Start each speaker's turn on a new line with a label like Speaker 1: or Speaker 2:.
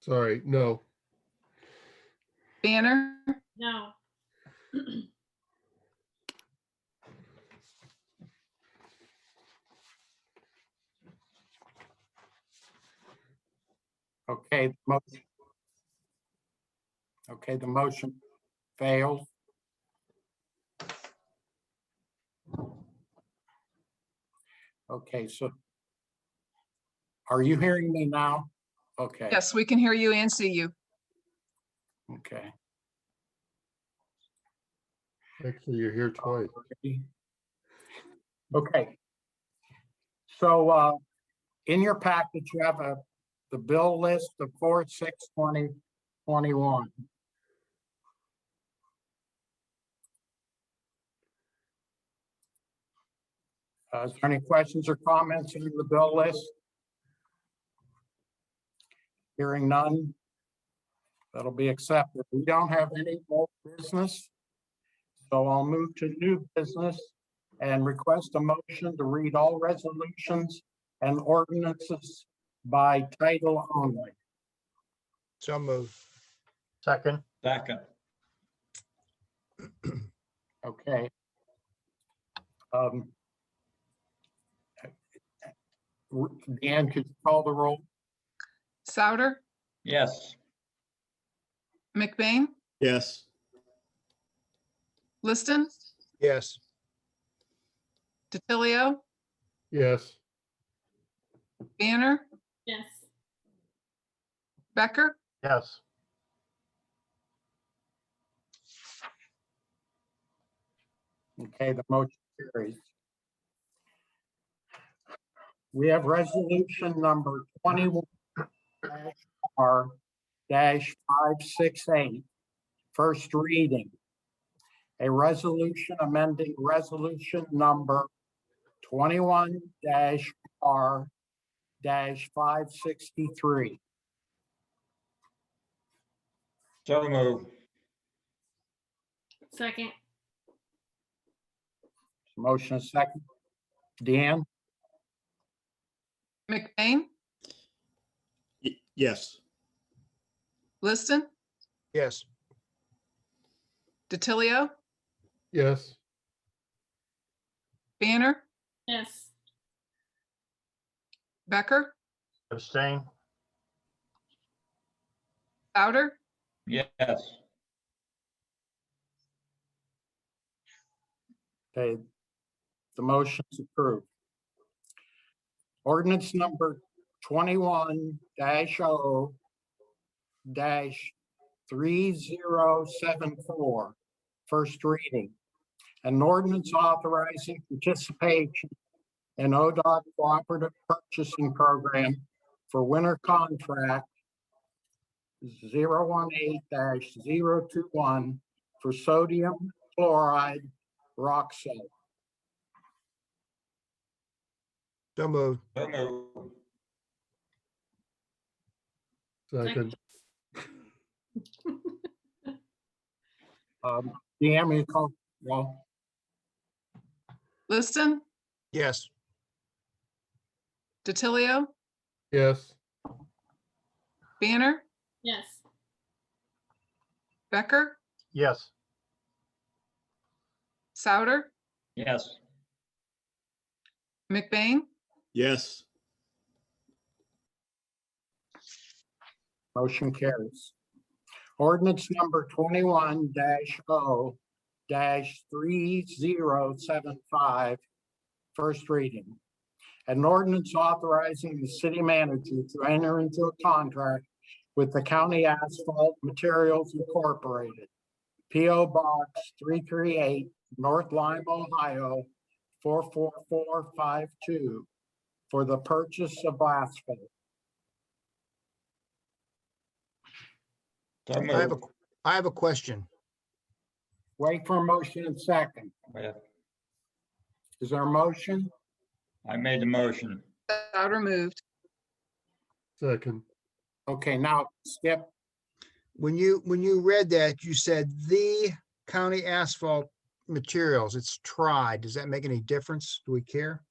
Speaker 1: Sorry, no.
Speaker 2: Banner,
Speaker 3: No.
Speaker 4: Okay. the motion- Okay, the motion fails. Okay, so are you hearing me now? Okay.
Speaker 2: yes, we can hear you and see you.
Speaker 4: Okay.
Speaker 1: Actually, you're here
Speaker 4: Oh.
Speaker 1: twice.
Speaker 4: Okay. So uh, in your package, you have a, the bill list of four, six, twenty, twenty-one. Uh, Is there any questions or comments on the bill list? Hearing none. That'll be accepted. We don't have any old business. So I'll move to new business and request a motion to read all resolutions and ordinances by title only.
Speaker 5: So moved.
Speaker 6: Second,
Speaker 7: Second,
Speaker 4: Okay. Um, Dan, could you call the roll?
Speaker 2: Souter,
Speaker 7: yes.
Speaker 2: McBain,
Speaker 8: yes,
Speaker 2: Liston,
Speaker 5: Yes.
Speaker 2: DiTilio,
Speaker 1: Yes,
Speaker 2: Banner,
Speaker 3: Yes.
Speaker 2: Becker,
Speaker 6: yes,
Speaker 4: Okay, the motion carries. We have resolution number twenty-one R dash five six eight, first reading. A resolution amending resolution number twenty-one dash R dash five sixty-three.
Speaker 7: So move,
Speaker 3: Second.
Speaker 4: Motion is second. Deanne?
Speaker 2: McBain,
Speaker 8: y- yes,
Speaker 2: Liston,
Speaker 5: Yes.
Speaker 2: DiTilio,
Speaker 1: yes,
Speaker 2: Banner,
Speaker 3: Yes.
Speaker 2: Becker,
Speaker 6: abstain,
Speaker 2: Souter,
Speaker 7: yes.
Speaker 4: Okay. The motion is approved. Ordinance number twenty-one dash O dash three zero seven four, first reading. An ordinance authorizing participation in ODOT Cooperative Purchasing Program for winter contract 018-021 for sodium chloride rock salt.
Speaker 5: So moved.
Speaker 7: So move,
Speaker 1: second,
Speaker 4: Um, Deanne, will you call, well,
Speaker 2: Liston,
Speaker 5: Yes.
Speaker 2: DiTilio,
Speaker 1: yes,
Speaker 2: Banner,
Speaker 3: Yes.
Speaker 2: Becker,
Speaker 6: yes,
Speaker 2: Souter,
Speaker 7: yes.
Speaker 2: McBain,
Speaker 8: yes.
Speaker 4: motion carries. Ordinance number twenty-one dash O dash three zero seven five, first reading. An ordinance authorizing the city manager to enter into a contract with the County Asphalt Materials Incorporated. P O Box three three eight, North Lime, Ohio, four four four five two, for the purchase of asphalt.
Speaker 7: So
Speaker 5: I have a,
Speaker 7: move,
Speaker 5: I have a question.
Speaker 4: Wait for a motion and second.
Speaker 7: Yeah,
Speaker 4: Is there a motion?
Speaker 7: I made the motion,
Speaker 2: Souter moved.
Speaker 1: second,
Speaker 4: Okay, now Skip,
Speaker 5: When you, when you read that, you said the county asphalt materials, it's tried. Does that make any difference? Do we care?